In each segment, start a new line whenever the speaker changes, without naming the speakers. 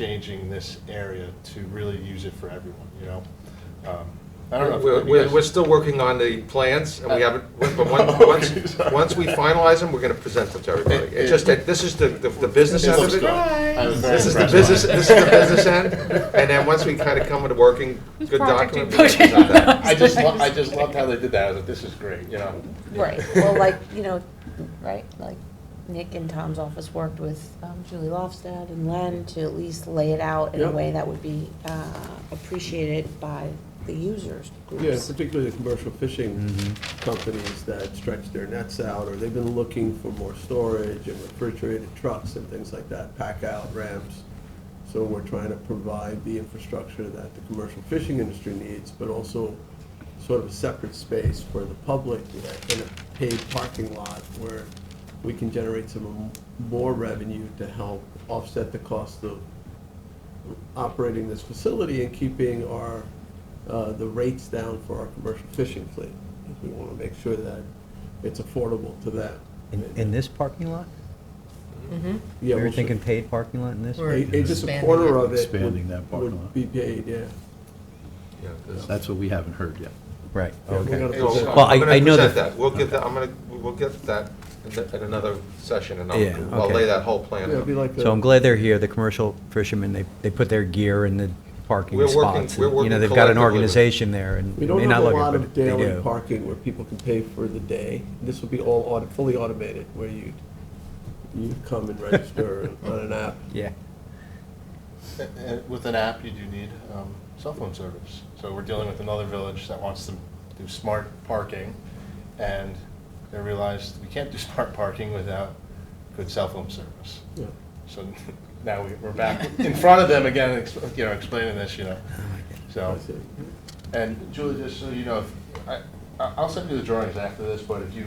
changing this area to really use it for everyone, you know? Um, I don't know. if
We're,
maybe
we're
that's-
we're still working on the plans, and we haven't, but one-
Okay,
once,
sorry.
once we finalize them, we're gonna present them to everybody.
It-
It's just that, this is the, the- the business
It
end
looks
of it.
good. I was very
This is the
impressed by
business,
it.
this is the business end, and then once we kind of come with a working,
Whose
good
project
document.
are
we
you
can present
pushing?
that.
I just, lo- I just loved how they did that. I was like, this is great, you know?
Right,
Well, like, you know, right, like Nick and Tom's office worked with um, Julie Lofstad and Len to at least lay it out in a
Yep.
way that would be uh, appreciated by the users.
Yeah,
groups.
particularly the commercial fishing companies that stretch their nets out, or they've been looking for more storage and refrigerated trucks and things like that, pack out ramps. So we're trying to provide the infrastructure that the commercial fishing industry needs, but also sort of a separate space for the public like, in a paved parking lot where we can generate some more revenue to help offset the cost of operating this facility and keeping our, uh, the rates down for our commercial fishing fleet. We want to make sure that it's affordable to them.
In, in this parking lot?
Yeah,
we
we'll
were
sh-
thinking paid parking lot in this?
a- a- Just a
Expanding
quarter
it.
of it
Expanding that
would-
parking
would
lot.
be paid, yeah.
Yeah, this-
That's what we haven't heard yet.
Right,
Yeah, we're
okay.
gonna
Well,
present-
Well, I-
I'm gonna
I know
present
that-
that. We'll get that, I'm gonna, we'll get that at the- at another session, and
Yeah,
I'll, I'll
okay.
lay that whole plan
Yeah, it'd be
out.
like a-
So I'm glad they're here, the commercial fishermen, they, they put their gear in the
We're
parking
working-
spots.
we're
and, You
working
know, they've got an
collectively with-
organization there and
We
they
don't
may
have
not
a
look
lot
at
of
it, but they
daily
do.
parking where people can pay for the day. This will be all auto, fully automated, where you'd, you'd come and register on an app.
Yeah,
And- and With an app, you do need um, cell phone service. So we're dealing with another village that wants to do smart parking, and they realized we can't do smart parking without good cell phone service.
Yeah.
So now we- we're back in front of them again, ex- you know, explaining this, you know. So,
That's it.
and Julie, just so you know, if- I, I- I'll send you the drawings after this, but if you,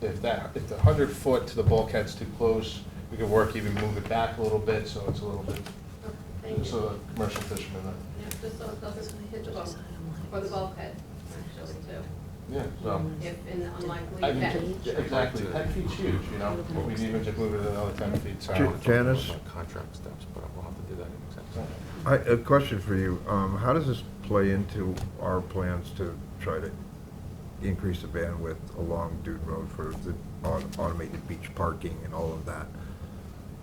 if that, if the hundred foot to the bulkhead's too close, we could work even move it back a little bit, so it's a little bit so the commercial fishermen, uh,
Yeah, just so it doesn't hit the bulkhead, or the bulkhead, actually, too,
yeah, so.
if in the unlikely
I mean,
event.
yeah, Exactly, ten feet's huge, you know, we even just move it another ten feet,
I'll
so.
talk
Janice?
about Contract steps, but we'll have to do that in executive. session.
I, a question for you, um, how does this play into our plans to try to increase the bandwidth along Dune Road for the au- automated beach parking and all of that?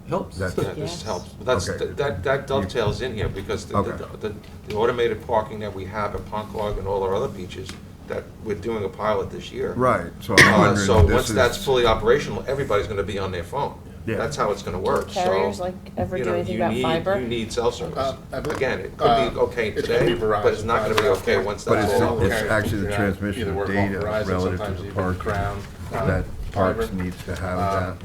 Helps.
That's-
Yeah, this
Yes.
helps. But That's,
Okay.
that, that dovetails in here, because the,
Okay.
the, the automated parking that we have at Ponquag and all our other beaches, that we're doing a pilot this year.
Right, so I'm
Uh,
wondering
so
if this
once
is-
that's fully operational, everybody's gonna be on their phone.
Yeah.
That's how it's gonna work, so.
carriers, like, ever
you
do
know,
anything
you
about
need-
fiber?
You need cell service.
Uh, I believe-
Again, it
uh,
could be okay
it's gonna be
today,
Verizon,
but it's not gonna be
Verizon.
okay once
But
that's
it's,
all over.
it's actually the transmission
Either
of
work off
data
Verizon,
relative
sometimes
to the
even
park
Crown, uh,
that parks
fiber.
needs to have that.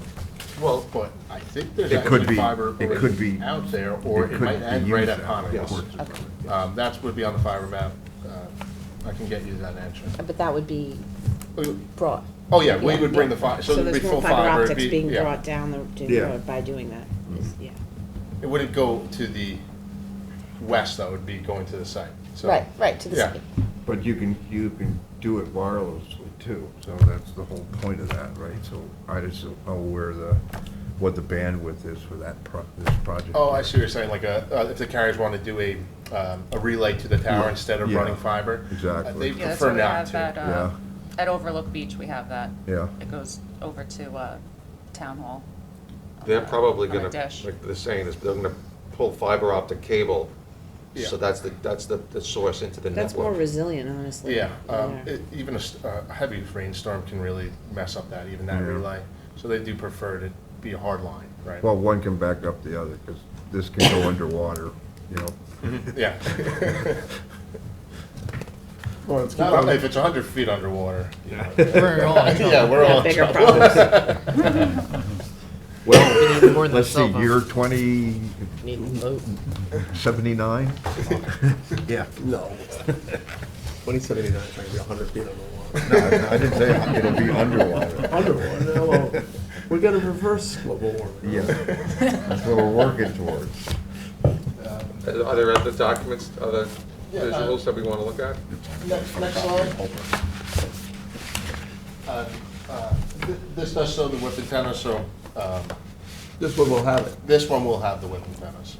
Well, but I think there's
It could
actually
be-
fiber
it
already
could be-
out there, or it
could
might
be
end right
used
at
that
Pownell.
Yes.
way.
Um, that's would be on the fiber map, uh, I can get you that answer.
But that would be
We-
brought.
Oh, yeah, we would bring the fi, so
So
it'd be
there's
full
more
fiber.
fiber
it'd
optics
be-
being
yeah. Mm-hmm.
brought down the, to the
Yeah.
road by doing that, is- yeah.
It wouldn't go to the west, though, it'd be going to the site, so.
Right, right, to the
Yeah.
city.
But you can, you can do it wirelessly too, so that's the whole point of that, right? So I just don't know where the, what the bandwidth is for that pro, this project.
Oh, I see what you're saying, like, uh, uh, if the carriers want to do a, um, a relay to the tower instead of
Yeah,
running fiber. uh,
exactly.
They
Yeah, that's
prefer
why we
not
have that,
to.
uh, at Overlook Beach, we have that.
Yeah.
It goes over to, uh, Town Hall. on
They're
a-
probably
on a
gonna,
dish.
like they're saying, is they're gonna pull fiber optic cable,
Yeah.
so that's the, that's the, the source into the network.
That's more resilient, honestly.
Yeah,
than
um,
there.
it- even a s- a heavy rainstorm can really mess up that, even that
Yeah.
relay. So they do prefer to be a hard line, right?
Well, one can back up the other, because this can go underwater, you know?
Yeah.
Well, let's keep
Not
on-
only if it's hundred feet underwater. you know.
We're all in
Yeah, we're
Got
all in
bigger
trouble.
Well, let's see, year twenty
Need a load.
seventy-nine? Yeah.
No. Twenty seventy-nine, it's gonna be a hundred feet on the water.
No, I I didn't say it'll be underwater.
Underwater, no, well, we're gonna reverse global warming.
Yeah, that's what we're working towards.
Uh,
Are are there other documents, other
Yeah, uh,
visuals that we wanna look at?
Next, next slide. Uh, uh, thi- This does show the whip antenna, so um,
This one will have it.
this one will have the whip antennas.